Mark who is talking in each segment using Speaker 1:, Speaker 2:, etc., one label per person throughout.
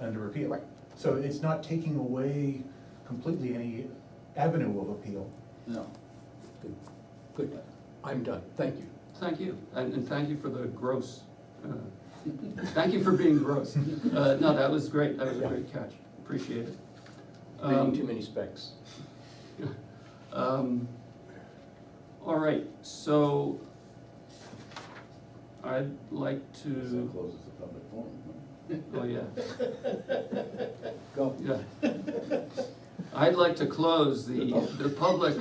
Speaker 1: under appeal. So it's not taking away completely any avenue of appeal.
Speaker 2: No,
Speaker 3: Good, good. I'm done, thank you.
Speaker 4: Thank you, and, and thank you for the gross. uh, Thank you for being gross. Uh, no, that was great, that was a great catch, appreciate it.
Speaker 3: Reading
Speaker 4: Um,
Speaker 3: too many specs.
Speaker 4: Um, all right, so I'd like
Speaker 2: because that
Speaker 4: to,
Speaker 2: closes the public forum. right?
Speaker 4: oh, yeah,
Speaker 3: Go.
Speaker 4: yeah. I'd like to close the, the public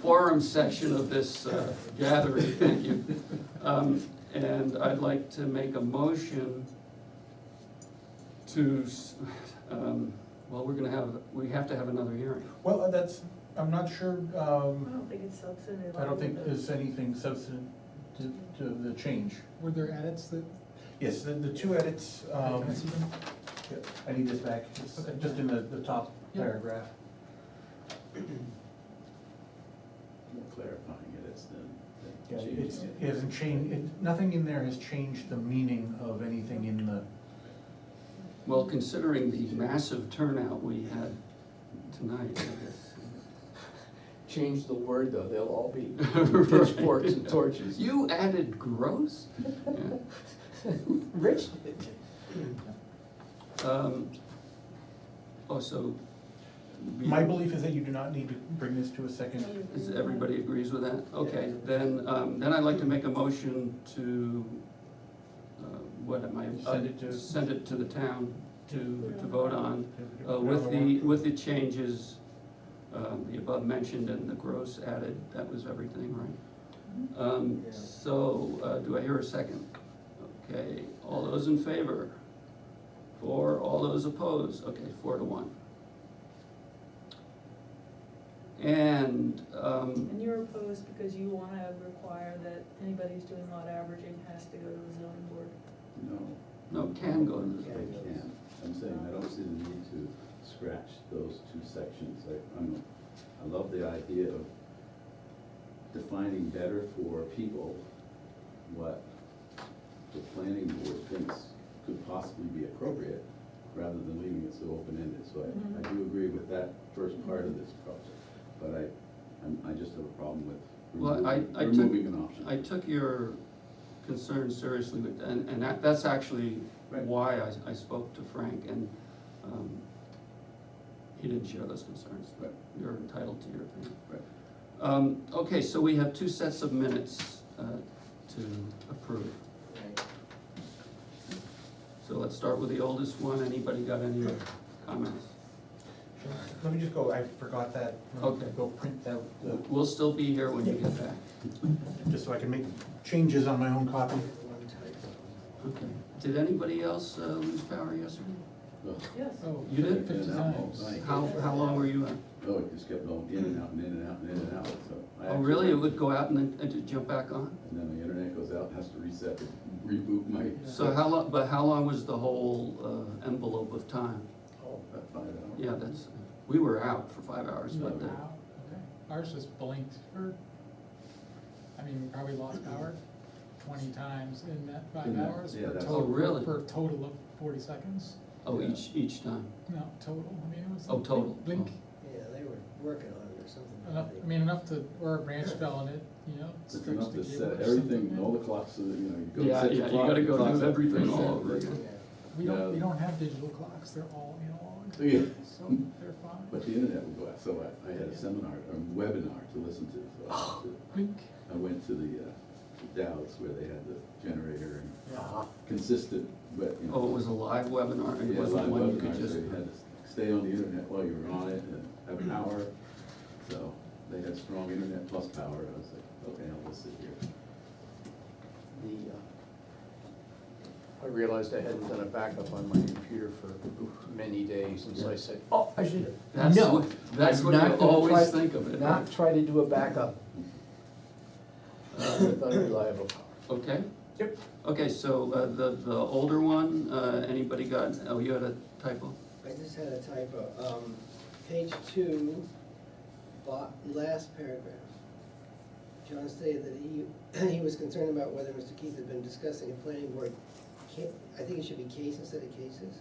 Speaker 4: forum section of this uh, gathering, thank you. Um, and I'd like to make a motion to, s- um, well, we're gonna have, we have to have another hearing.
Speaker 1: Well, uh, that's, I'm not sure,
Speaker 5: I
Speaker 1: um,
Speaker 5: don't think it's substantive.
Speaker 1: I don't think there's anything substantive to to the change.
Speaker 6: Were there edits that,
Speaker 1: Yes, the, the two edits, um,
Speaker 6: can I see them?
Speaker 1: I need this back, it's
Speaker 6: Okay.
Speaker 1: just in the, the top
Speaker 6: Yeah.
Speaker 1: paragraph.
Speaker 2: More clarifying it, it's then.
Speaker 1: Yeah, it's,
Speaker 2: changing
Speaker 1: it hasn't changed, it, nothing in there has changed the meaning of anything in the,
Speaker 4: Well, considering the massive turnout we had tonight, I guess.
Speaker 3: Change the word, though, they'll all be
Speaker 4: Right.
Speaker 3: pitchforks and torches.
Speaker 4: You added gross? Yeah.
Speaker 3: Rich did.
Speaker 4: Um, Oh, so. we-
Speaker 1: my belief is that you do not need to bring this to a second.
Speaker 4: Is, everybody agrees with that? Okay, then, um, then I'd like to make a motion to, uh, what am I? Uh,
Speaker 1: Send it to-
Speaker 4: Send it to the town to, to vote on, uh, with the, with the changes, um, the above mentioned and the gross added, that was everything, right? Um,
Speaker 6: Yeah.
Speaker 4: so, uh, do I hear a second? Okay, all those in favor? Four, all those opposed, okay, four to one. And, um,
Speaker 5: And you're opposed because you wanna require that anybody who's doing lot averaging has to go to the zoning board.
Speaker 2: No.
Speaker 4: no, can go
Speaker 2: I
Speaker 4: to the zoning board.
Speaker 2: can, I'm saying, I don't see the need to scratch those two sections, I, I'm, I love the idea of defining better for people what the planning board thinks could possibly be appropriate, rather than leaving it so open-ended, so I, I do agree with that first part of this project, but I, I'm, I just have a problem with
Speaker 4: Well, I-
Speaker 2: removing,
Speaker 4: I took-
Speaker 2: removing an option.
Speaker 4: I took your concern seriously with, and, and that, that's actually
Speaker 2: Right.
Speaker 4: why I, I spoke to Frank and, um, he didn't share those concerns.
Speaker 2: Right.
Speaker 4: You're entitled to your opinion.
Speaker 2: Right.
Speaker 4: Um, okay, so we have two sets of minutes, uh, to approve. So let's start with the oldest one. Anybody got any comments?
Speaker 1: Let me just go, I forgot that. Let me
Speaker 4: Okay.
Speaker 1: Go print that, uh,
Speaker 4: We'll still be here when you get back.
Speaker 1: just so I can make changes on my own copy.
Speaker 4: Okay. Did anybody else uh, lose power yesterday?
Speaker 2: Ugh.
Speaker 5: Yes.
Speaker 6: oh,
Speaker 4: You did?
Speaker 6: fifty
Speaker 2: Yeah, that
Speaker 6: times.
Speaker 2: whole thing.
Speaker 4: How, how long were you out?
Speaker 2: Oh, it just kept going in and out and in and out and in and out, so. I
Speaker 4: Oh,
Speaker 2: actually-
Speaker 4: really? It would go out and then, and to jump back on?
Speaker 2: And then the internet goes out, has to reset, it, reboot my,
Speaker 4: So how long, but how long was the whole uh, envelope of time?
Speaker 2: about five hours.
Speaker 4: Yeah, that's, we were out for five hours, but the-
Speaker 6: Wow, okay. Ours just blinked for, I mean, we probably lost power twenty times in that five
Speaker 2: In that-
Speaker 6: hours.
Speaker 2: yeah,
Speaker 6: for
Speaker 2: that's-
Speaker 4: Oh,
Speaker 6: total-
Speaker 4: really?
Speaker 6: For a total of forty seconds,
Speaker 4: oh, each, each time.
Speaker 6: no, total, I mean, it was.
Speaker 4: Oh,
Speaker 6: a
Speaker 4: total.
Speaker 6: Blink,
Speaker 7: Yeah, they were working on it or something.
Speaker 6: enough, I mean, enough to, or a branch fell and it, you know,
Speaker 2: It's
Speaker 6: stretched
Speaker 2: enough
Speaker 6: the
Speaker 2: to
Speaker 6: cable
Speaker 2: set
Speaker 6: or
Speaker 2: everything,
Speaker 6: something.
Speaker 2: all the clocks, so that, you know, you go
Speaker 4: Yeah,
Speaker 2: set
Speaker 4: yeah,
Speaker 2: your
Speaker 4: you
Speaker 2: clock.
Speaker 4: gotta go
Speaker 2: clock's
Speaker 4: do
Speaker 2: up,
Speaker 4: everything
Speaker 2: reset,
Speaker 4: all over
Speaker 2: reset.
Speaker 4: again.
Speaker 6: We don't, we
Speaker 2: Yeah.
Speaker 6: don't have digital clocks, they're all analog,
Speaker 2: Yeah.
Speaker 6: so they're fine.
Speaker 2: But the internet would go out, so I, I had a seminar, a webinar to listen to, so I went to-
Speaker 6: Blink,
Speaker 2: I went to the uh, Dow's where they had the generator and consistent, but, you know.
Speaker 4: Uh-huh. Oh, it was a live webinar, it
Speaker 2: Yeah,
Speaker 4: wasn't
Speaker 2: live
Speaker 4: one you could
Speaker 2: webinars,
Speaker 4: just,
Speaker 2: so you had to Stay on the internet while you were on it and have an hour, so they had strong internet plus power, I was like, okay, I'll just sit here.
Speaker 3: The, uh, I realized I hadn't done a backup on my computer for many days, and so I said, oh, I should.
Speaker 4: That's
Speaker 3: No,
Speaker 4: what- that's
Speaker 3: I'm
Speaker 4: what you
Speaker 3: not gonna
Speaker 4: always
Speaker 3: try-
Speaker 4: think of it."
Speaker 3: Not try to do a backup
Speaker 2: Mm-hmm.
Speaker 3: uh, with unreliable power.
Speaker 4: okay?
Speaker 1: Yep.
Speaker 4: Okay, so uh, the, the older one, uh, anybody got, oh, you had a typo?
Speaker 7: I just had a typo, um, page two, bo- last paragraph. John stated that he, he was concerned about whether Mr. Keith had been discussing a planning board, ca- I think it should be case instead of cases.